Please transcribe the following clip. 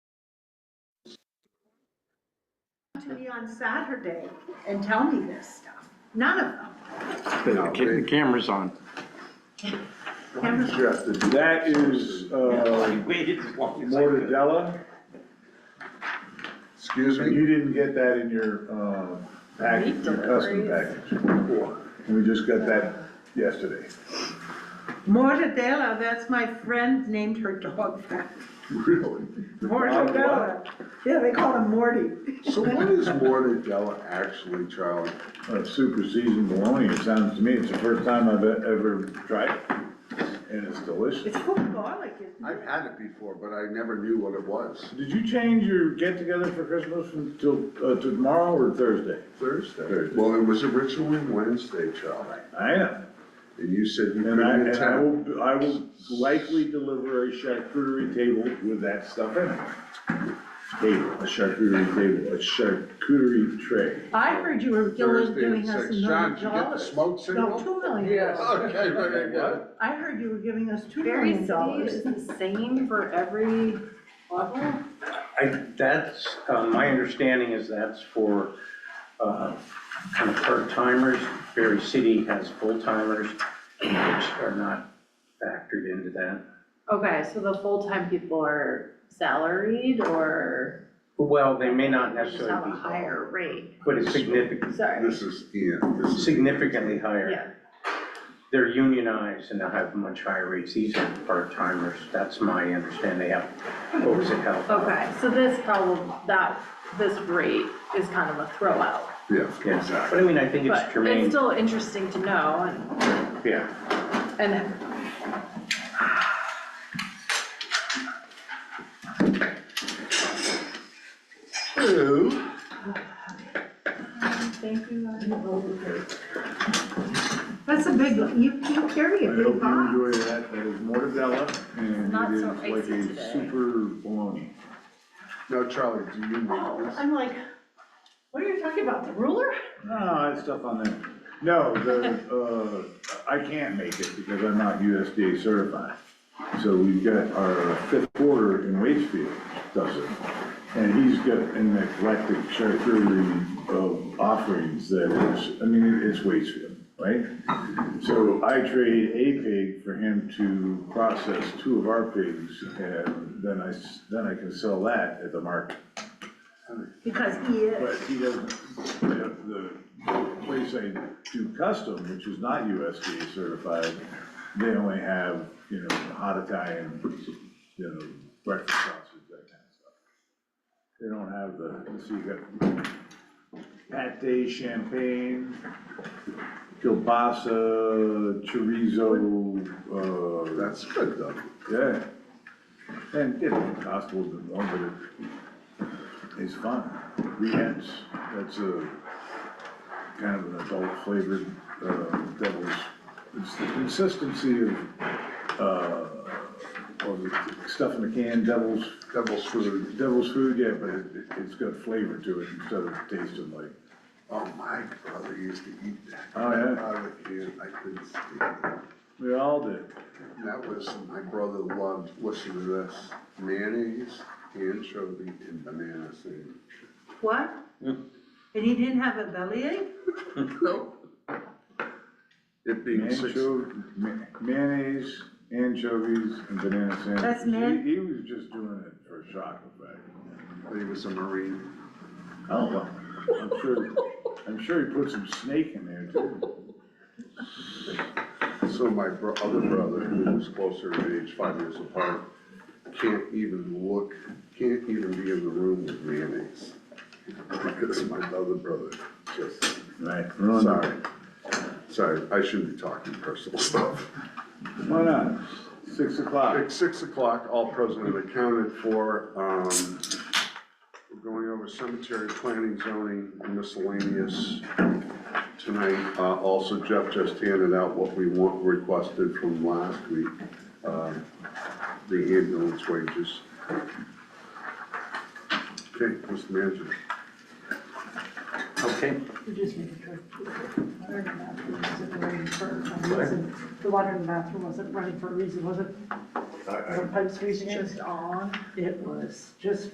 to me on Saturday and tell me this stuff. None of them. The ca- the camera's on. Why did you have to do That is, uh, Mortadella, Excuse and me? you didn't get that in your, um, package, your custom package. We just got that yesterday. Mortadella, that's my friend named her dog that. Really? Mortadella. Yeah, they call him Morty. So what is mortadella actually, Charlie? Uh, super seasoned bologna, it sounds to me, it's the first time I've e- ever tried it, and it's delicious. It's called garlic, isn't it? I've had it before, but I never knew what it was. Did you change your get-together for Christmas from till, uh, to tomorrow or Thursday? Thursday. Thursday. Well, it was originally Wednesday, Charlie, I know, and you said you and I, couldn't and I attend. will, I will likely deliver a charcuterie table with that stuff in it. Table, a charcuterie table, a charcuterie tray. I heard you were doing, Thursday doing at us a six. million John, did you get the dollars. smoke signal? No, two million. Okay, very good. I heard you were giving us two Very million dollars. is the same for every level? I, that's, uh, my understanding is that's for, uh, kind of part-timers. Berry City has full-timers, which are not factored into that. Okay, so the full-time people are salaried or Well, they may not just necessarily have be. a higher rate? But it's significant, Sorry, This is Ian, this is. significantly yeah, higher. They're unionized and they have much higher rates. These are part-timers. That's my understanding. They have, what was it, health? okay, so this problem, that, this rate is kind of a throwout. Yeah, Yeah, exactly. but I mean, I think it's But it's germane, still interesting to know yeah. and, and Hello. thank you. That's a big, you, you carry I a hope big box. you enjoy that, that is mortadella, Not and so it is like icy a today. super bologna. Now, Charlie, do you make this? I'm like, what are you talking about, the ruler? No, it's stuff on there. No, the, uh, I can't make it because I'm not USDA certified. So we've got our fifth quarter in Waitsfield does it. And he's got an eclectic charcuterie of offerings that is, I mean, it's Waitsfield, right? So I trade a pig for him to process two of our pigs and then I, s- then I can sell that at the market. Because he But is. he doesn't, the, the place I do custom, which is not USDA certified, they only have, you know, hot Italian, you know, breakfast sausage, that kind of stuff. They don't have the, so you got pate, champagne, kielbasa, chorizo, uh, That's good though. yeah. And it cost a little bit more, but it- it's fun. Rehens, that's a kind of an adult flavored, uh, devil's, it's the consistency of, uh, of the stuff in the can, devil's, Devil's food. devil's food, yeah, but it, it- it's got flavor to it instead of tasting like, Oh, my brother used to eat that. Oh, yeah. Out of the can, I couldn't stand it. we all did. And That was, my brother loved, listen to this, mayonnaise, anchovy, and banana sandwich. What? And he didn't have a bellyache? Nope. It being six, Ancho- ma- Mayonnaise, anchovies, and banana sandwiches. That's man- He he was just doing it for shock effect. he was a Marine. Oh, well, I'm sure, I'm sure he put some snake in there too. So my bro- other brother, who was closer in age, five years apart, can't even look, can't even be in the room with mayonnaise. Because my other brother just, Right. sorry, sorry, I shouldn't be talking personal stuff. Why not? Six o'clock. At six o'clock, all present and accounted for. Um, We're going over cemetery planning, zoning, and miscellaneous tonight. Uh, Also, Jeff just handed out what we want requested from last week, um, the ambulance wages. Okay, Mr. Manager. Okay. You just need to. Water in the bathroom wasn't running for a reason. The water in the bathroom wasn't running for a reason, was it? The pipes freezing. Just on. It was just